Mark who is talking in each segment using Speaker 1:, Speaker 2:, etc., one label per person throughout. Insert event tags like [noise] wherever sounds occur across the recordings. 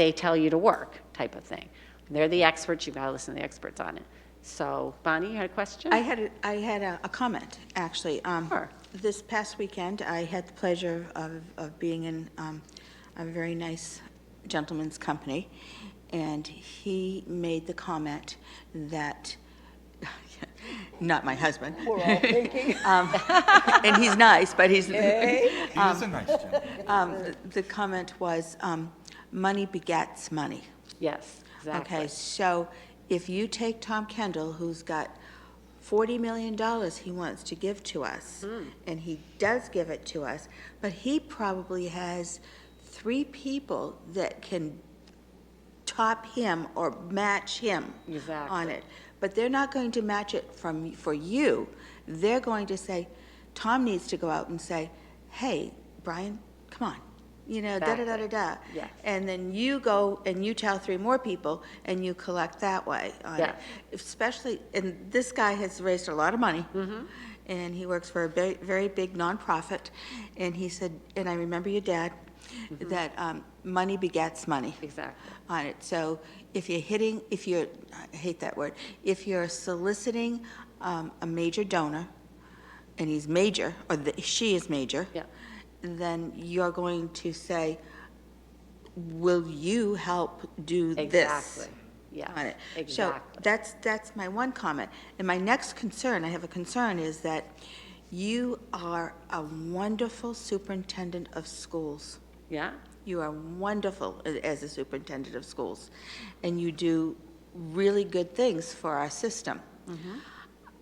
Speaker 1: they tell you to work type of thing. They're the experts, you've got to listen to the experts on it. So Bonnie, you had a question?
Speaker 2: I had, a- I had a a comment, actually. Um,
Speaker 1: Sure.
Speaker 2: This past weekend, I had the pleasure of, of being in um, a very nice gentleman's company, and he made the comment that, [laughs] not my husband. We're all [laughs] thinking. And he's nice, but he's,
Speaker 3: He is a nice gentleman.
Speaker 2: [laughs] um, the comment was, um, money begets money.
Speaker 1: Yes,
Speaker 2: Okay,
Speaker 1: exactly.
Speaker 2: so if you take Tom Kendall, who's got forty million dollars he wants to give to us,
Speaker 1: Hmm.
Speaker 2: and he does give it to us, but he probably has three people that can top him or match him on
Speaker 1: Exactly.
Speaker 2: it. But they're not going to match it from, for you. They're going to say, Tom needs to go out and say, hey, Brian, come on, you know,
Speaker 1: Exactly.
Speaker 2: da-da-da-da-da.
Speaker 1: Yes.
Speaker 2: And then you go and you tell three more people, and you collect that way on it.
Speaker 1: Yeah.
Speaker 2: Especially, and this guy has raised a lot of money. And he works for a very, very big nonprofit. And he said, and I remember your dad, that um, money begets money
Speaker 1: Exactly.
Speaker 2: on it. So if you're hitting, if you're, I hate that word, if you're soliciting um, a major donor, and he's major, or the- she is major.
Speaker 1: Yeah.
Speaker 2: Then you're going to say, will you help do this?
Speaker 1: Exactly. Yes,
Speaker 2: on it. So
Speaker 1: exactly.
Speaker 2: that's, that's my one comment. And my next concern, I have a concern, is that you are a wonderful superintendent of schools.
Speaker 1: Yeah,
Speaker 2: You are wonderful a- as a superintendent of schools, and you do really good things for our system.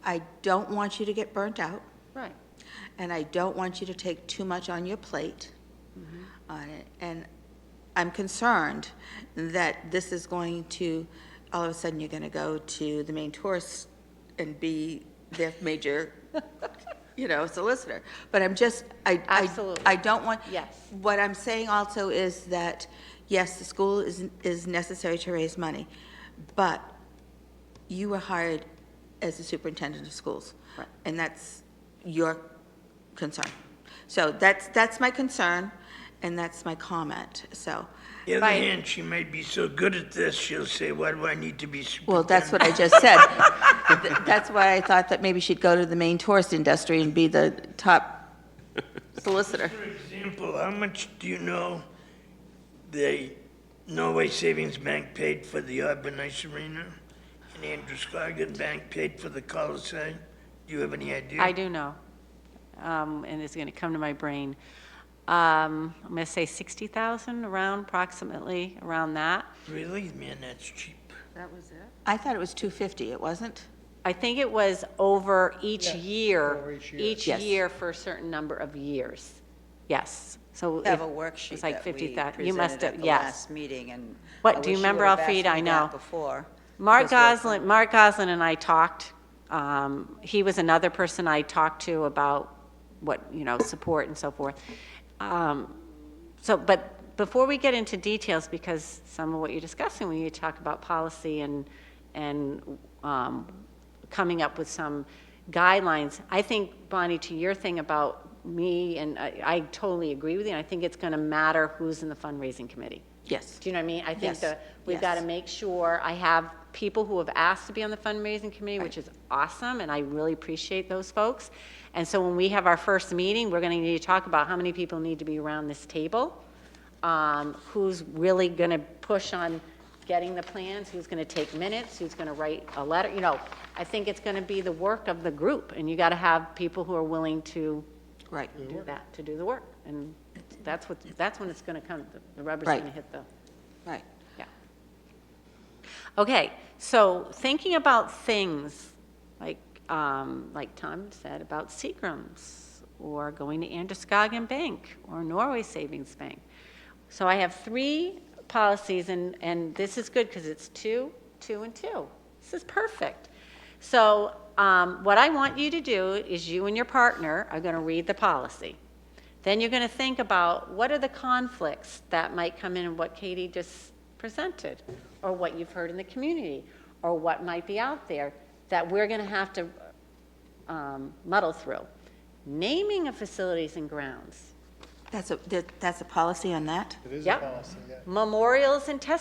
Speaker 2: I don't want you to get burnt out,
Speaker 1: right.
Speaker 2: and I don't want you to take too much on your plate on it. And I'm concerned that this is going to, all of a sudden, you're going to go to the main tourist and be their major, you know, solicitor. But I'm just, I, I-
Speaker 1: Absolutely.
Speaker 2: I don't want.
Speaker 1: Yes.
Speaker 2: What I'm saying also is that, yes, the school is, is necessary to raise money, but you were hired as the superintendent of schools.
Speaker 1: Right.
Speaker 2: And that's your concern. So that's, that's my concern, and that's my comment, so.
Speaker 4: The other
Speaker 1: Right.
Speaker 4: hand, she might be so good at this, she'll say, why do I need to be
Speaker 2: Well,
Speaker 4: superintendent?
Speaker 2: that's what I just said. Th- That's why I thought that maybe she'd go to the main tourist industry and be the top
Speaker 1: [laughs]
Speaker 2: solicitor.
Speaker 4: For example, how much do you know the Norway Savings Bank paid for the Auburn Ice Arena? And Andrew Scoggin Bank paid for the Coliseum? Do you have any idea?
Speaker 1: I do know, um, and it's going to come to my brain. Um, I'm going to say 60,000 around, approximately around that.
Speaker 4: Really? Man, that's cheap.
Speaker 2: I thought it was 250, it wasn't?
Speaker 1: I think it was over each year, each
Speaker 2: Yes.
Speaker 1: year for a certain number of years. Yes, so.
Speaker 5: have
Speaker 1: if-
Speaker 5: a worksheet
Speaker 1: it's like
Speaker 5: that we
Speaker 1: 50,000.
Speaker 5: presented
Speaker 1: You must have-
Speaker 5: at the
Speaker 1: yes.
Speaker 5: last meeting, and.
Speaker 1: What,
Speaker 5: I
Speaker 1: do you
Speaker 5: wish
Speaker 1: remember,
Speaker 5: would've asked
Speaker 1: Alfred?
Speaker 5: me
Speaker 1: I
Speaker 5: that
Speaker 1: know.
Speaker 5: Before.
Speaker 1: Mark
Speaker 5: because we're-
Speaker 1: Goslin, Mark Goslin and I talked. Um, he was another person I talked to about what, you know, support and so forth. Um, so, but before we get into details, because some of what you're discussing, when you talk about policy and, and um, coming up with some guidelines, I think, Bonnie, to your thing about me, and I, I totally agree with you, and I think it's going to matter who's in the fundraising committee.
Speaker 2: Yes.
Speaker 1: Do you know what I mean? I think
Speaker 2: Yes,
Speaker 1: that we've got to
Speaker 2: yes.
Speaker 1: make sure, I have people who have asked to be on the fundraising committee, which is awesome, and I really appreciate those folks. And so when we have our first meeting, we're going to need to talk about how many people need to be around this table, um, who's really going to push on getting the plans, who's going to take minutes, who's going to write a letter, you know. I think it's going to be the work of the group, and you got to have people who are willing to
Speaker 2: Right.
Speaker 1: do that, to do the work. And that's what, that's when it's going to come, the- the rubber's
Speaker 2: Right.
Speaker 1: going to hit the
Speaker 2: Right.
Speaker 1: yeah. Okay, so thinking about things, like, um, like Tom said, about Seagrams, or going to Androscoggin Bank, or Norway Savings Bank. So I have three policies, and, and this is good, because it's two, two, and two. This is perfect. So, um, what I want you to do is you and your partner are gonna read the policy. Then you're gonna think about what are the conflicts that might come in and what Katie just presented, or what you've heard in the community, or what might be out there that we're gonna have to um, muddle through. Naming of facilities and grounds.
Speaker 6: That's a, that- that's a policy on that?
Speaker 2: It is a
Speaker 1: Yep.
Speaker 2: policy, yeah.
Speaker 1: Memorials and testimonies